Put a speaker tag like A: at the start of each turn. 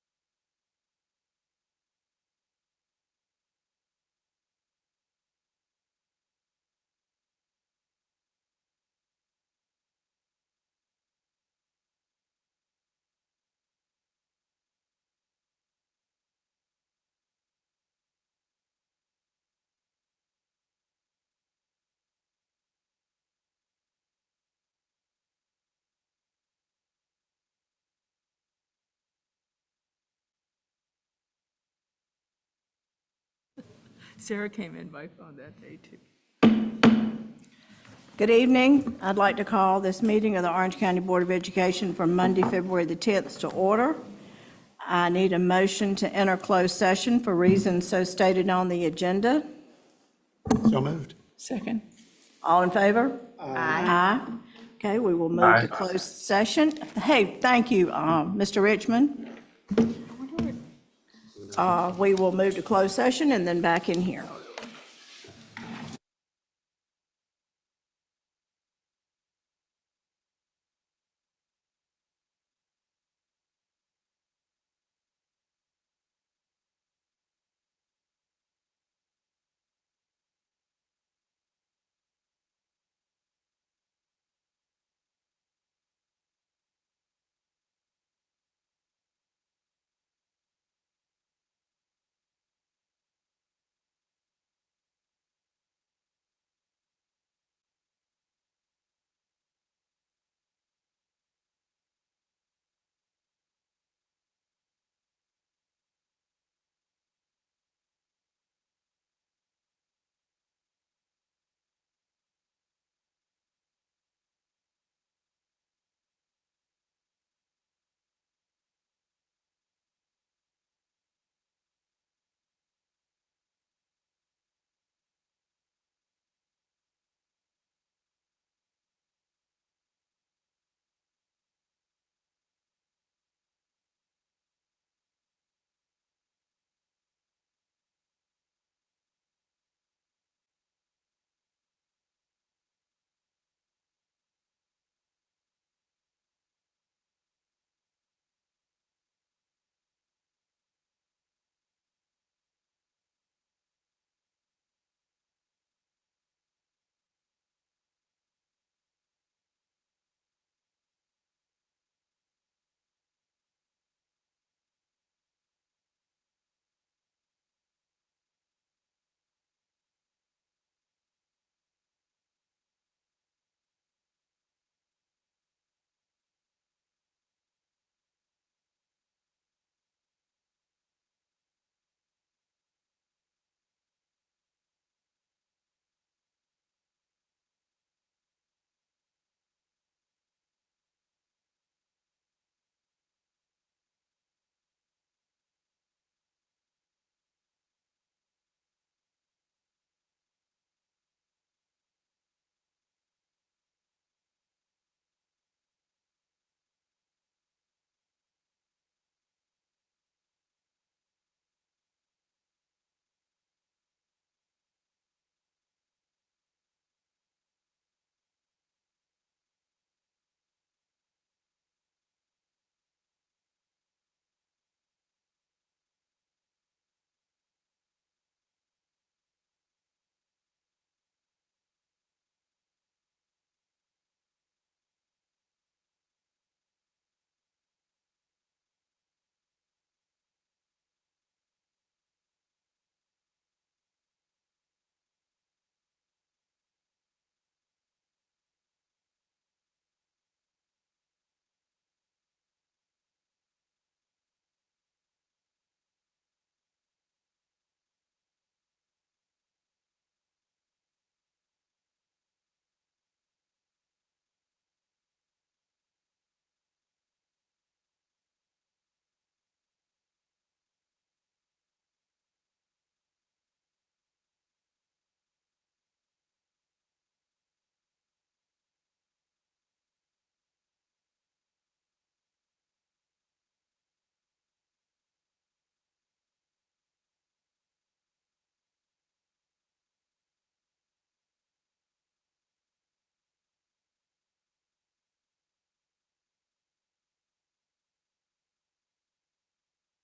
A: Sarah came in by phone that day, too.
B: Good evening. I'd like to call this meeting of the Orange County Board of Education for Monday, February the 10th to order. I need a motion to enter closed session for reasons so stated on the agenda.
C: So moved.
A: Second.
B: All in favor? Aye. Aye. Okay, we will move to closed session. Hey, thank you, uh, Mr. Richmond. Uh, We will move to closed session and then back in here.